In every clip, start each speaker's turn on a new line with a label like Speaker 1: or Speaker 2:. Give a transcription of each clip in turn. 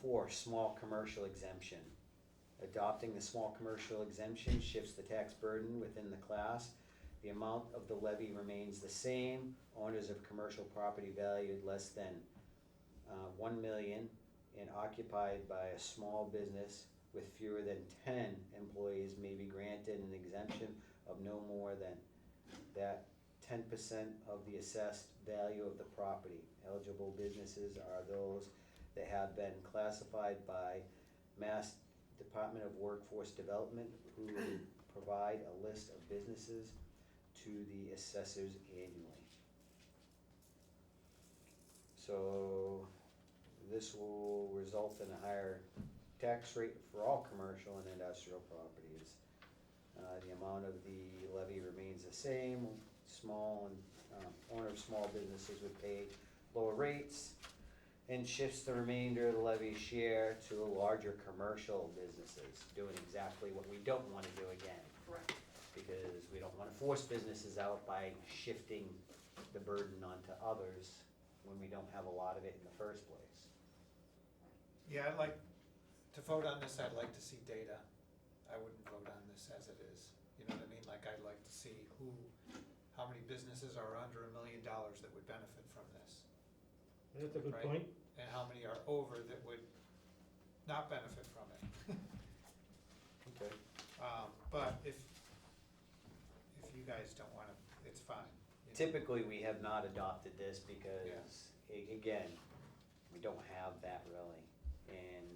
Speaker 1: four, small commercial exemption. Adopting the small commercial exemption shifts the tax burden within the class. The amount of the levy remains the same. Owners of commercial property valued less than uh, one million and occupied by a small business with fewer than ten employees may be granted an exemption of no more than that ten percent of the assessed value of the property. Eligible businesses are those that have been classified by Mass Department of Workforce Development, who provide a list of businesses to the assessors annually. So this will result in a higher tax rate for all commercial and industrial properties. Uh, the amount of the levy remains the same, small and, um, owner of small businesses would pay lower rates. And shifts the remainder of the levy share to larger commercial businesses, doing exactly what we don't wanna do again
Speaker 2: Correct.
Speaker 1: because we don't wanna force businesses out by shifting the burden onto others when we don't have a lot of it in the first place.
Speaker 3: Yeah, I'd like, to vote on this, I'd like to see data. I wouldn't vote on this as it is. You know what I mean? Like, I'd like to see who, how many businesses are under a million dollars that would benefit from this?
Speaker 4: That's a good
Speaker 3: Right.
Speaker 4: point.
Speaker 3: And how many are over that would not benefit from it?
Speaker 1: Okay.
Speaker 3: Um, but if, if you guys don't wanna, it's fine. you know?
Speaker 1: Typically, we have not adopted this because, a- again, we don't have that really. And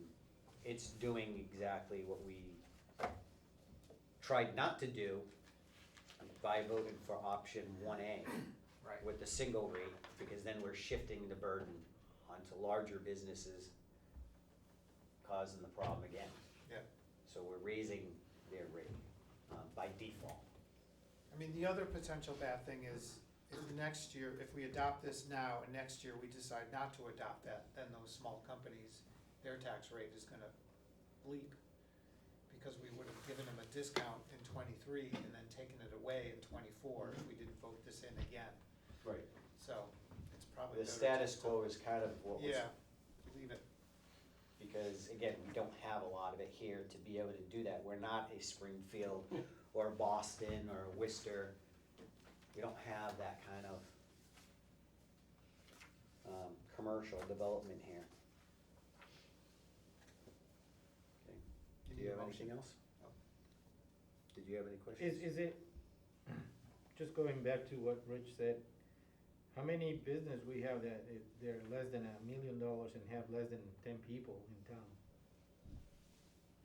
Speaker 1: it's doing exactly what we tried not to do by voting for option one A.
Speaker 3: Right,
Speaker 1: with the single rate, because then we're shifting the burden onto larger businesses, causing the problem again.
Speaker 3: Yeah.
Speaker 1: So we're raising their rate, um, by default.
Speaker 3: I mean, the other potential bad thing is, if next year, if we adopt this now, and next year we decide not to adopt that, then those small companies, their tax rate is gonna leap. Because we would have given them a discount in twenty-three and then taken it away in twenty-four if we didn't vote this in again,
Speaker 1: Right.
Speaker 3: so it's probably
Speaker 1: The
Speaker 3: better
Speaker 1: status
Speaker 3: just to-
Speaker 1: quo is kind of what was,
Speaker 3: Yeah, leave it,
Speaker 1: because again, we don't have a lot of it here to be able to do that. We're not a Springfield or Boston or Worcester. We don't have that kind of, um, commercial development here. Okay. Do
Speaker 3: you need
Speaker 1: you
Speaker 3: a
Speaker 1: have
Speaker 3: motion.
Speaker 1: anything else?
Speaker 3: No.
Speaker 1: Did you have any
Speaker 4: Is,
Speaker 1: questions?
Speaker 4: is it, just going back to what Rich said, how many business we have that if they're less than a million dollars and have less than ten people in town?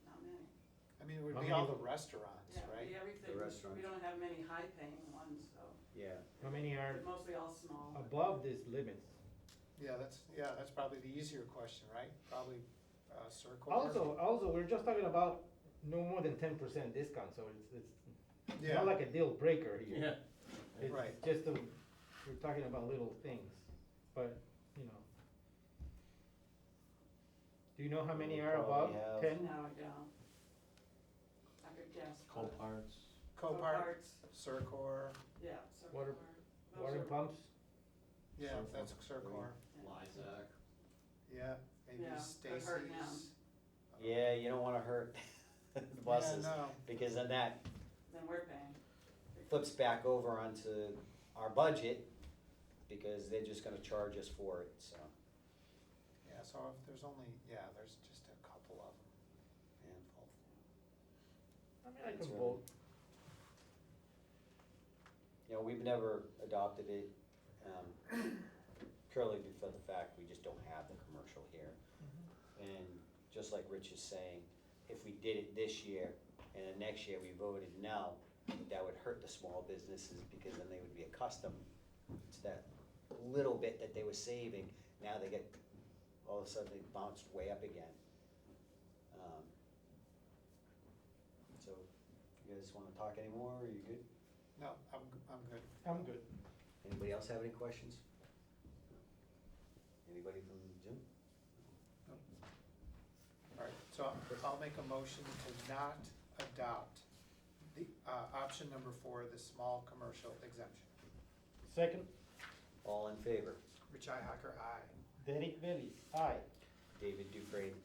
Speaker 2: Not many.
Speaker 3: I mean, it would
Speaker 4: How
Speaker 3: be all
Speaker 4: many-
Speaker 3: the restaurants,
Speaker 2: Yeah,
Speaker 3: right?
Speaker 2: we- everything,
Speaker 1: restaurants.
Speaker 2: we don't have many high-paying ones, so
Speaker 1: Yeah,
Speaker 4: How many are
Speaker 2: they're mostly all small.
Speaker 4: above these limits?
Speaker 3: Yeah, that's, yeah, that's probably the easier question, right? Probably, uh, circle.
Speaker 4: Also, also, we're just talking about no more than ten percent discount, so it's, it's
Speaker 3: Yeah.
Speaker 4: not like a deal breaker here. Yeah.
Speaker 3: Right.
Speaker 4: It's just, a- we're talking about little things, but, you know. Do you know how many
Speaker 1: We
Speaker 4: are above
Speaker 1: probably have-
Speaker 4: ten?
Speaker 2: No, I don't. I could guess. but-
Speaker 5: Coparts.
Speaker 3: Copart, Circor,
Speaker 2: Yeah. circle
Speaker 4: Water-
Speaker 2: park. Those
Speaker 4: Water
Speaker 2: are-
Speaker 4: pumps?
Speaker 3: yeah,
Speaker 5: Circor.
Speaker 3: that's Circor,
Speaker 2: yeah.
Speaker 5: Lysac.
Speaker 3: yeah, maybe
Speaker 2: Yeah, I've
Speaker 3: Stacy's.
Speaker 2: heard now.
Speaker 1: yeah, you don't wanna hurt the buses,
Speaker 3: Yeah, no,
Speaker 1: because then that
Speaker 2: Then we're paying.
Speaker 1: flips back over onto our budget, because they're just gonna charge us for it, so,
Speaker 3: yeah, so if there's only, yeah, there's just a couple of them
Speaker 1: yeah.
Speaker 3: involved.
Speaker 4: I mean, I
Speaker 1: That's
Speaker 4: can
Speaker 1: right.
Speaker 4: vote.
Speaker 1: You know, we've never adopted it, um, purely because of the fact we just don't have the commercial here. And just like Rich is saying, if we did it this year, and then next year we voted no, that would hurt the small businesses, because then they would be accustomed to that little bit that they were saving, now they get, all of a sudden they bounced way up again. Um, So, you guys wanna talk anymore, are you good?
Speaker 3: No, I'm, g- I'm good.
Speaker 4: I'm good.
Speaker 1: Anybody else have any questions? Anybody from Zoom?
Speaker 3: All right, so I'll- I'll make a motion to not adopt the, uh, option number four, the small commercial exemption.
Speaker 4: Second,
Speaker 1: All in favor?
Speaker 3: Richi Hacker, aye.
Speaker 4: Derek Bellis, aye.
Speaker 1: David Dufresne,